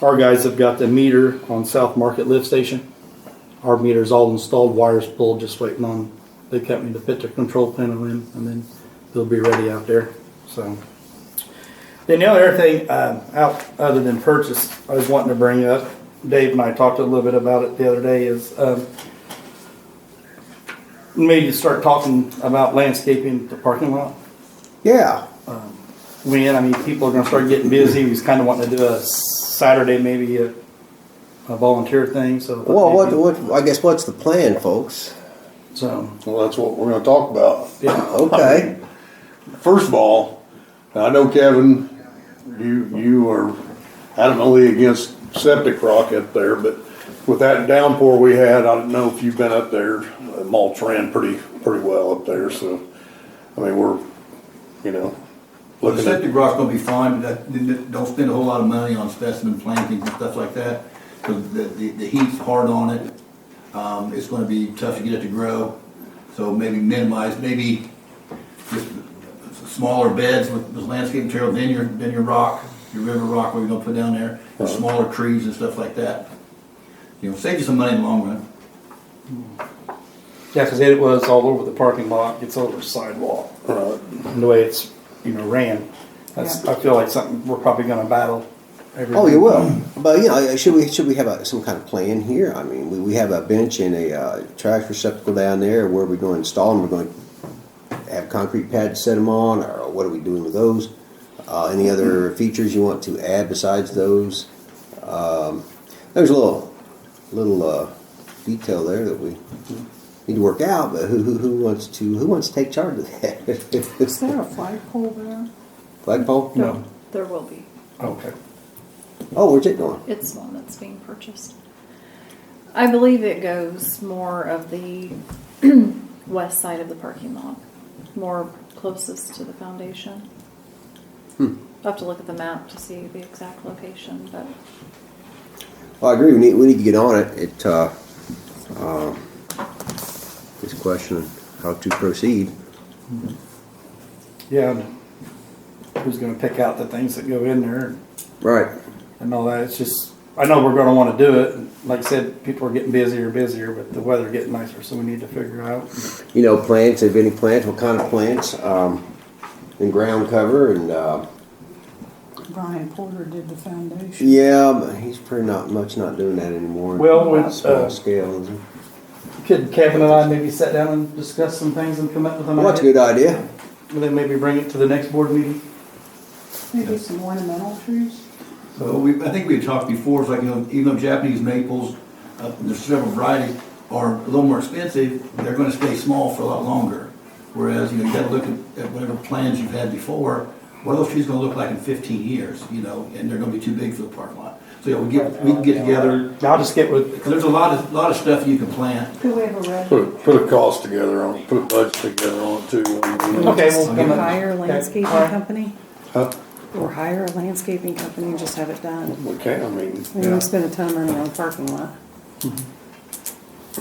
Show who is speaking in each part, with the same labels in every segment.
Speaker 1: Our guys have got the meter on South Market lift station. Our meter's all installed, wires pulled, just waiting on the company to put their control panel in, and then they'll be ready out there, so. Then the other thing, uh, out, other than purchase, I was wanting to bring up, Dave and I talked a little bit about it the other day, is, um, maybe to start talking about landscaping the parking lot.
Speaker 2: Yeah,
Speaker 1: When, I mean, people are gonna start getting busy, he's kinda wanting to do a Saturday, maybe a, a volunteer thing, so.
Speaker 2: well, what, what, I guess what's the plan, folks?
Speaker 1: So,
Speaker 3: Well, that's what we're gonna talk about.
Speaker 1: yeah,
Speaker 2: Okay,
Speaker 3: First of all, I know Kevin, you, you are adamantly against septic rock up there, but with that downpour we had, I don't know if you've been up there, uh, mulch ran pretty, pretty well up there, so, I mean, we're, you know,
Speaker 4: Well, the
Speaker 3: looking at,
Speaker 4: septic rock's gonna be fine, but that, don't spend a whole lot of money on specimen plantings and stuff like that, because the, the, the heat's hard on it. Um, it's gonna be tough to get it to grow, so maybe minimize, maybe just smaller beds with, with landscape material, then your, then your rock, your river rock, what you're gonna put down there,
Speaker 3: Uh-huh.
Speaker 4: and smaller trees and stuff like that. You know, save you some money in the long run.
Speaker 1: yeah, cause it was all over the parking lot, it's over the sidewalk,
Speaker 3: uh,
Speaker 1: and the way it's, you know, ran. That's, I feel like something we're probably gonna battle. every-
Speaker 2: oh, you will, but you know, uh, should we, should we have a, some kind of plan here? I mean, we, we have a bench and a, uh, trash receptacle down there, where we gonna install them, we're gonna have concrete pads set them on, or what are we doing with those? Uh, any other features you want to add besides those? Um, there's a little, little, uh, detail there that we need to work out, but who, who, who wants to, who wants to take charge of
Speaker 5: Is
Speaker 2: that?
Speaker 5: there a flagpole there?
Speaker 2: Flagpole?
Speaker 1: No.
Speaker 5: There will be.
Speaker 1: Okay.
Speaker 2: Oh, where's it going?
Speaker 5: It's the one that's being purchased. I believe it goes more of the west side of the parking lot, more closest to the foundation.
Speaker 2: Hmm.
Speaker 5: I'll have to look at the map to see the exact location, but
Speaker 2: Well, Oh, I agree. We need, we need to get on it. It, uh, uh, it's a question of how to proceed.
Speaker 1: Yeah, and who's gonna pick out the things that go in there and-
Speaker 2: Right.
Speaker 1: and all that, it's just, I know we're gonna wanna do it, and like I said, people are getting busier and busier, but the weather getting nicer, so we need to figure out.
Speaker 2: You know, plants, if any plants, what kind of plants, um, and ground cover and, uh,
Speaker 6: Brian Porter did the foundation.
Speaker 2: yeah, but he's pretty not, much not doing that anymore.
Speaker 1: Well, with, uh,
Speaker 2: Small scale, is it?
Speaker 1: Could Kevin and I maybe sit down and discuss some things and come up with an
Speaker 2: Well, that's a good
Speaker 1: idea?
Speaker 2: idea.
Speaker 1: And then maybe bring it to the next board meeting?
Speaker 6: Maybe some ornamental trees?
Speaker 4: So we, I think we had talked before, it's like, you know, even though Japanese maples, uh, there's several varieties, are a little more expensive, they're gonna stay small for a lot longer. Whereas, you know, you gotta look at, at whatever plans you've had before, what are those trees gonna look like in fifteen years, you know, and they're gonna be too big for the parking lot. So, yeah, we get, we can get together,
Speaker 1: I'll just get with,
Speaker 4: 'cause there's a lot of, lot of stuff you can plant.
Speaker 6: Could we have a red?
Speaker 3: put, a- put a cost together on, it, put a budget together on it too. when we-
Speaker 1: okay, we'll come up.
Speaker 6: Hire a
Speaker 1: Okay,
Speaker 6: landscaping
Speaker 1: all right.
Speaker 6: company,
Speaker 3: Huh?
Speaker 6: or hire a landscaping company and just have it done.
Speaker 3: We can, I mean,
Speaker 6: We don't spend a ton of money on parking lot.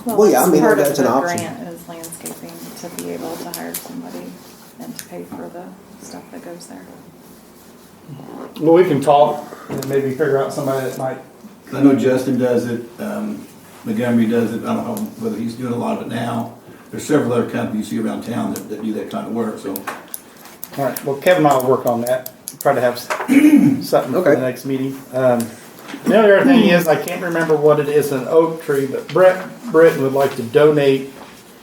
Speaker 2: Well, yeah, I
Speaker 5: that's
Speaker 2: mean,
Speaker 5: part of
Speaker 2: that's an
Speaker 5: the
Speaker 2: option.
Speaker 5: Grant is landscaping to be able to hire somebody and to pay for the stuff that goes there.
Speaker 1: Well, we can talk and maybe figure out somebody that might,
Speaker 4: I know Justin does it, um, Montgomery does it, I don't know whether he's doing a lot of it now. There's several other companies here around town that, that do that kind of work, so.
Speaker 1: all right, well, Kevin and I will work on that, try to have s- something for the
Speaker 2: Okay.
Speaker 1: next meeting. Um, The other thing is, I can't remember what it is, an oak tree, but Brett, Britton would like to donate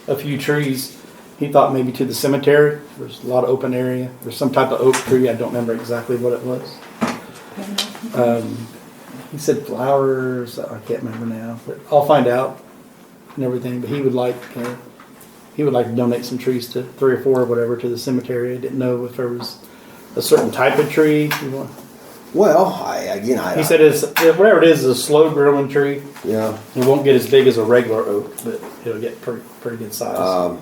Speaker 1: a few trees. He thought maybe to the cemetery, there's a lot of open area, there's some type of oak tree, I don't remember exactly what it was. Um, he said flowers. I can't remember now, but I'll find out and everything. But he would like uh, he would like to donate some trees to three or four or whatever to the cemetery. I didn't know if there was a certain type of tree. you want-
Speaker 2: Well, I, again, I.
Speaker 1: He said it's whatever it is, is a slow growing tree.
Speaker 2: Yeah.
Speaker 1: It won't get as big as a regular oak, but it'll get pretty pretty good size.
Speaker 2: Um,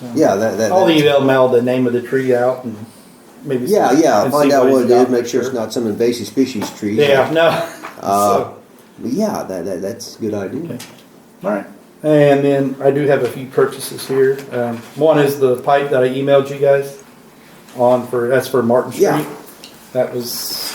Speaker 1: So,
Speaker 2: yeah, that, that.
Speaker 1: I'll
Speaker 2: that-
Speaker 1: email Mel the name of the tree out and maybe
Speaker 2: Yeah,
Speaker 1: some-
Speaker 2: yeah,
Speaker 1: and
Speaker 2: find
Speaker 1: see
Speaker 2: out what
Speaker 1: he's
Speaker 2: it is,
Speaker 1: got.
Speaker 2: make sure it's not some invasive species tree.
Speaker 1: Yeah, no.
Speaker 2: Uh,
Speaker 1: So-
Speaker 2: But yeah, that, that, that's a good idea.
Speaker 1: Okay. All right. And then I do have a few purchases here. Um, one is the pipe that I emailed you guys on for, that's for Martin Street.
Speaker 2: Yeah.
Speaker 1: That was